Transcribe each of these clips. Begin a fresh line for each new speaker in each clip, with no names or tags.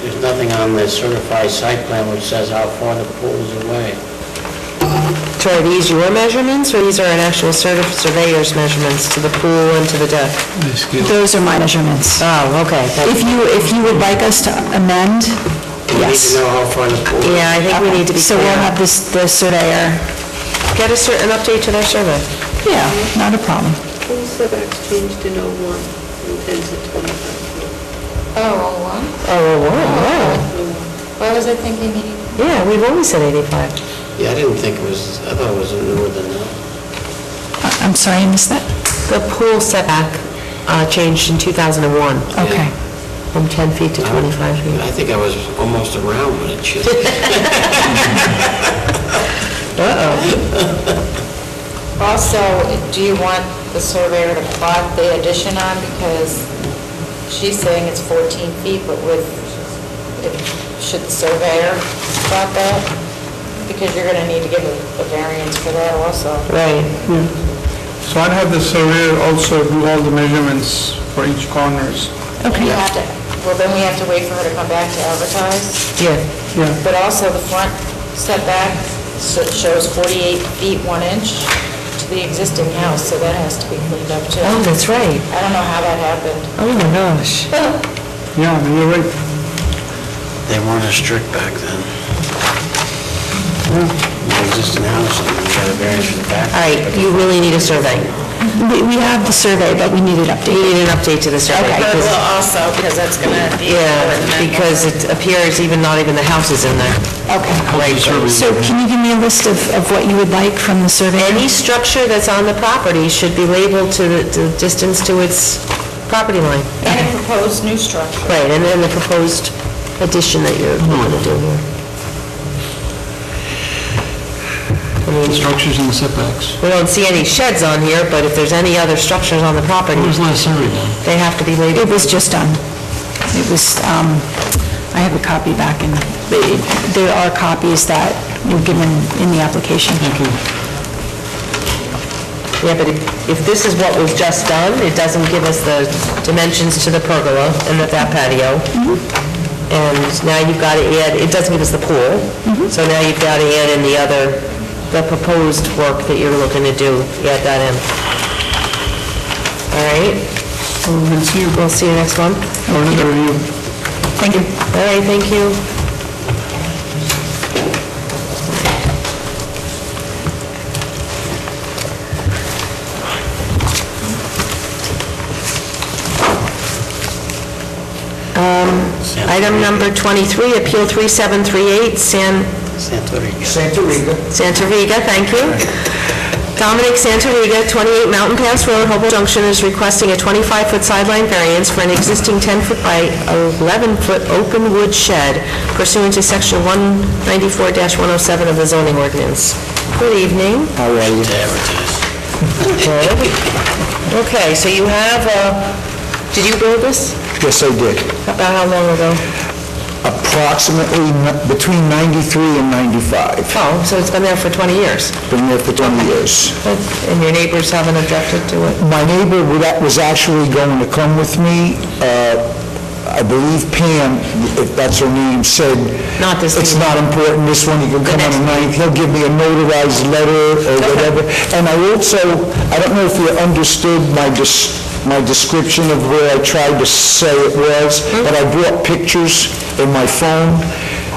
There's nothing on the certified site plan which says how far the pool is away.
So are these your measurements, or these are an actual certi- surveyor's measurements to the pool and to the deck?
Those are my measurements.
Oh, okay. that-
If you, if you would like us to amend, yes.
We need to know how far the pool is.
Yeah, I think we need to be
So we'll
clear.
have this, the surveyor,
Get a cer, an update to their survey.
yeah, not a problem.
Pool setbacks changed in 01 from 10 to 25.
Oh, wow.
Oh, wow,
Why was I thinking eighty?
yeah, we've always said 85.
Yeah, I didn't think it was, I thought it was newer than that.
I- I'm sorry, I missed that.
The pool setback uh, changed in 2001
Okay.
from 10 feet to 25 feet.
I think I was almost around when it should.
Also, do you want the surveyor to plot the addition on, because she's saying it's 14 feet, but with, if- should the surveyor plot that? Because you're gonna need to give a a variance for that also.
Right,
Yeah. So I'd have the surveyor also do all the measurements for each corners.
Okay. You have to, well, then we have to wait for her to come back to advertise,
yeah.
Yeah,
but also the front setback so it shows 48 feet 1 inch to the existing house, so that has to be cleaned up too.
Oh, that's right.
I don't know how that happened.
Oh, my gosh.
yeah, you're right.
They weren't as strict back then. The existing house, and we got a variance for the back.
All right, you really need a survey.
We we have the survey, but we need it
You
updated.
need an update to the survey. because-
also, because that's gonna be...
Yeah, because it appears even, not even the house is in there. Okay.
So can you give me a list of, of what you would like from the surveyor?
Any structure that's on the property should be labeled to the, to the distance to its property line.
And a proposed Oh, new structure.
Right, and then the proposed addition that you're
Hmm.
going to do here.
Structures and setbacks.
We don't see any sheds on here, but if there's any other structures on the property,
When was the last survey done?
they have to be labeled.
It was just done. It was, um, I have a copy back in, there are copies that were given in the application.
Yeah, but if, if this is what was just done, it doesn't give us the dimensions to the pergola and the that patio. And now you've got to add, it doesn't give us the pool. So now you've got to add in the other, the proposed work that you're looking to do, add that in. All right? We'll see you. We'll see you next month.
Or another review.
Thank you.
All right, thank you. Um, Item number 23, Appeal 3738, San...
Santori.
Santoriga, thank you. Dominic Santoriga, 28 Mountain Pass Road, Hopewell Junction, is requesting a 25-foot sideline variance for an existing 10-foot by 11-foot open wood shed pursuant to Section 194-107 of the zoning ordinance. Good evening.
How are you? To advertise.
Okay, so you have, uh, did you build this?
Yes, I did.
About how long ago?
Approximately n- between 93 and 95.
Oh, so it's been there for 20 years,
Been there for 20 years.
and your neighbors haven't objected to it?
My neighbor wa- that was actually going to come with me. Uh, I believe Pam, if that's her name, said...
Not this
It's
meeting."
not important, this one, you can come on
next
the ninth. He'll give me a notarized letter or whatever. And I also, I don't know if you understood my des- my description of where I tried to say it was,
Hmm?
but I brought pictures in my phone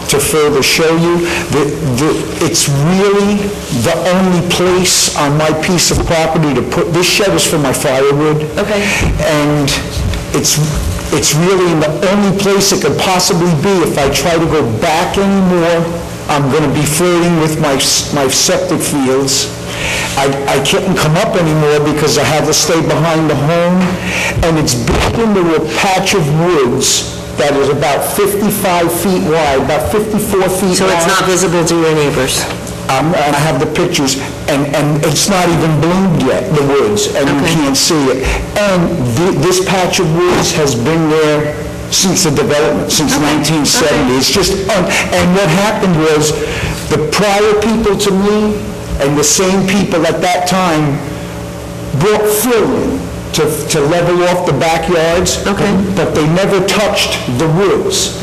to further show you. The- the- It's really the only place on my piece of property to put, this shed is for my firewood.
Okay.
And it's, it's really the only place it could possibly be. If I try to go back anymore, I'm going to be flirting with my, s- my septic fields. I, I can't come up anymore because I have to stay behind the home, and it's built into a patch of woods that is about 55 feet wide, about 54 feet
So it's not
long.
visible to your neighbors?
Um, and I have the pictures, and, and it's not even bloomed yet, the woods, and you
Okay.
can't see it. And thi- this patch of woods has been there since the development, since 1970. It's just, un- and what happened was, the prior people to me, and the same people at that time, brought fill in to, to level off the backyards.
Okay.
But they never touched the woods.